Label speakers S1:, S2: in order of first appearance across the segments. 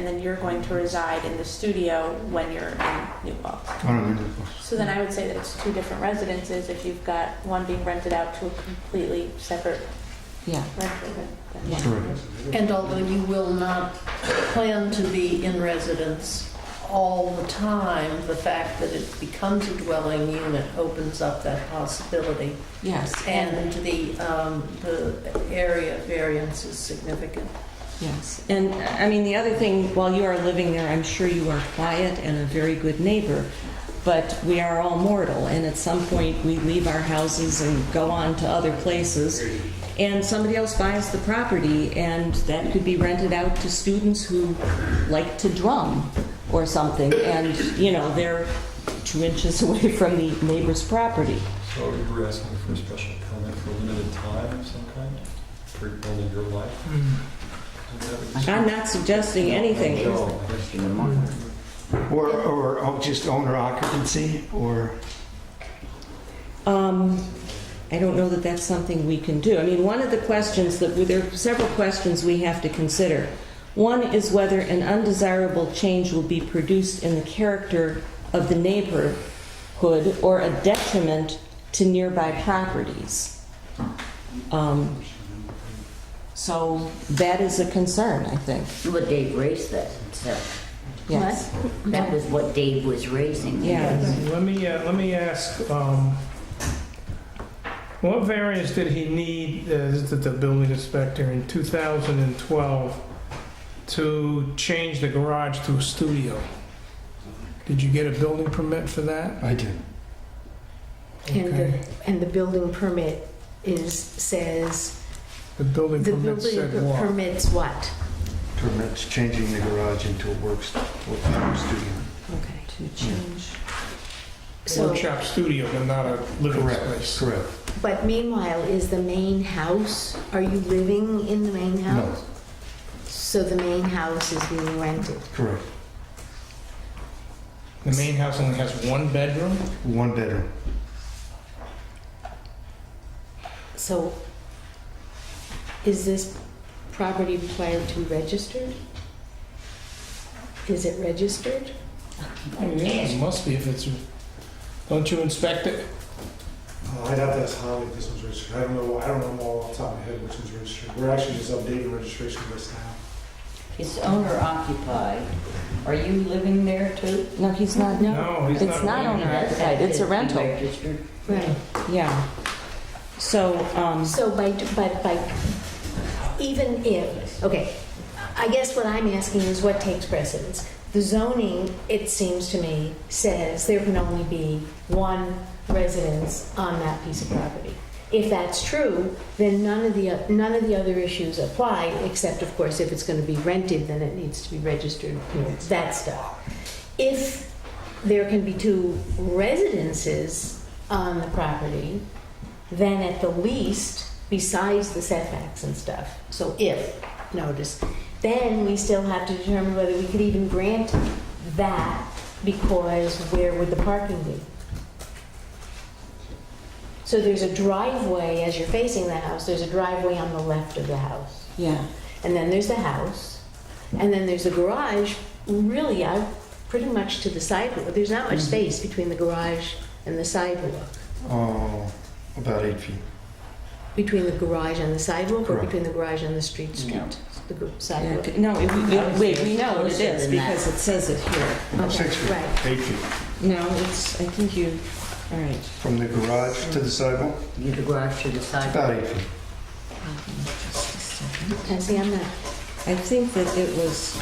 S1: and then you're going to reside in the studio when you're in New Paltz.
S2: I don't know, Nicholas.
S1: So then I would say that it's two different residences if you've got one being rented out to a completely separate
S3: Yeah.
S1: renter.
S2: Correct.
S4: And although you will not plan to be in residence all the time, the fact that it becomes a dwelling unit opens up that possibility.
S3: Yes,
S4: And the, um, the area variance is significant.
S3: yes. And I mean, the other thing, while you are living there, I'm sure you are quiet and a very good neighbor, but we are all mortal, and at some point, we leave our houses and go on to other places, and somebody else buys the property, and that could be rented out to students who like to drum or something, and, you know, they're two inches away from the neighbor's property.
S5: So you were asking for a special permit for a limited time of some kind, for only your life? Is that what you
S3: I'm not suggesting anything.
S5: said?
S2: Or, or oh, just owner occupancy, or,
S3: Um, I don't know that that's something we can do. I mean, one of the questions that, there are several questions we have to consider. One is whether an undesirable change will be produced in the character of the neighborhood or a detriment to nearby properties. Um, So that is a concern, I think,
S6: But Dave raised that, so
S3: yes.
S6: that was what Dave was raising.
S3: Yeah.
S7: Let me, uh, let me ask, um, what variance did he need, uh, this is the building inspector, in 2012 to change the garage to a studio? Did you get a building permit for that?
S2: I did.
S8: And the,
S7: Okay.
S8: and the building permit is, says,
S7: The building
S8: the
S7: permit
S8: building
S7: said what?
S8: permits what?
S2: Permits changing the garage into a works, work studio.
S3: Okay. To change.
S8: So,
S7: Workshop studio, but not a living
S2: Correct,
S7: space.
S2: correct.
S8: but meanwhile, is the main house, are you living in the main
S2: No.
S8: house? So the main house is being rented?
S2: Correct.
S7: The main house only has one bedroom?
S2: One bedroom.
S8: So is this property required to be registered? Is it registered?
S7: Oh, yeah, it must be if it's, don't you inspect it?
S9: Uh, I'd have to ask Holly if this was registered. I don't know, I don't know all off the top of my head which was registered. We're actually just updating registration list now.
S6: It's owner occupied. Are you living there too?
S3: No, he's not,
S7: No, he's not.
S3: It's not
S7: renting
S3: on
S7: it.
S3: that side. It's a rental.
S6: Registered.
S8: Right.
S3: yeah. So, um,
S8: So by, but by, even if, okay, I guess what I'm asking is what takes precedence? The zoning, it seems to me, says there can only be one residence on that piece of property. If that's true, then none of the, uh, none of the other issues apply, except of course if it's gonna be rented, then it needs to be registered, you know, that stuff. If there can be two residences on the property, then at the least, besides the setbacks and stuff, so if, notice, then we still have to determine whether we could even grant that, because where would the parking be? So there's a driveway, as you're facing the house, there's a driveway on the left of the house.
S3: yeah.
S8: And then there's the house, and then there's the garage, really, I, pretty much to the sidewalk. There's not much space between the garage and the sidewalk.
S2: Oh, about eight feet.
S8: Between the garage and the sidewalk, or
S2: Correct.
S8: between the garage and the street
S6: No.
S8: street? The gr-
S3: Yeah,
S8: sidewalk?
S3: okay. No, it- we- we- wait, we know what it
S6: Closer
S3: is
S6: than that.
S3: because it says it here.
S8: Okay,
S2: Six feet.
S8: right.
S2: Eight feet.
S3: No, it's, I think you, all right.
S2: From the garage to the sidewalk,
S6: You could go out to the side.
S2: about eight feet.
S3: Just a second.
S8: And see, I'm not,
S3: I think that it was.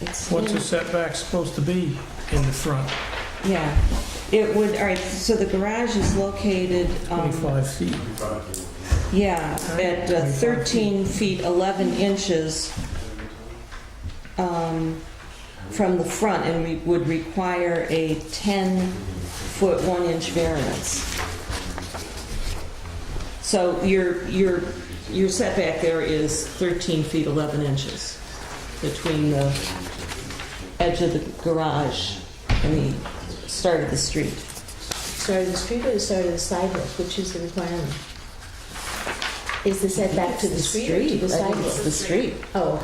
S3: it's-
S7: What's the setback supposed to be in the front?
S3: Yeah, it would, all right, so the garage is located, um,
S7: 25 feet.
S3: yeah, at uh, 13 feet 11 inches um, from the front and we would require a 10-foot 1-inch variance. So your, your, your setback there is 13 feet 11 inches between the edge of the garage and the start of the street.
S8: start of the street or the start of the sidewalk, which is the requirement? Is the setback to the street or to the
S3: I think It's the
S8: sidewalk?
S3: street.
S8: Oh,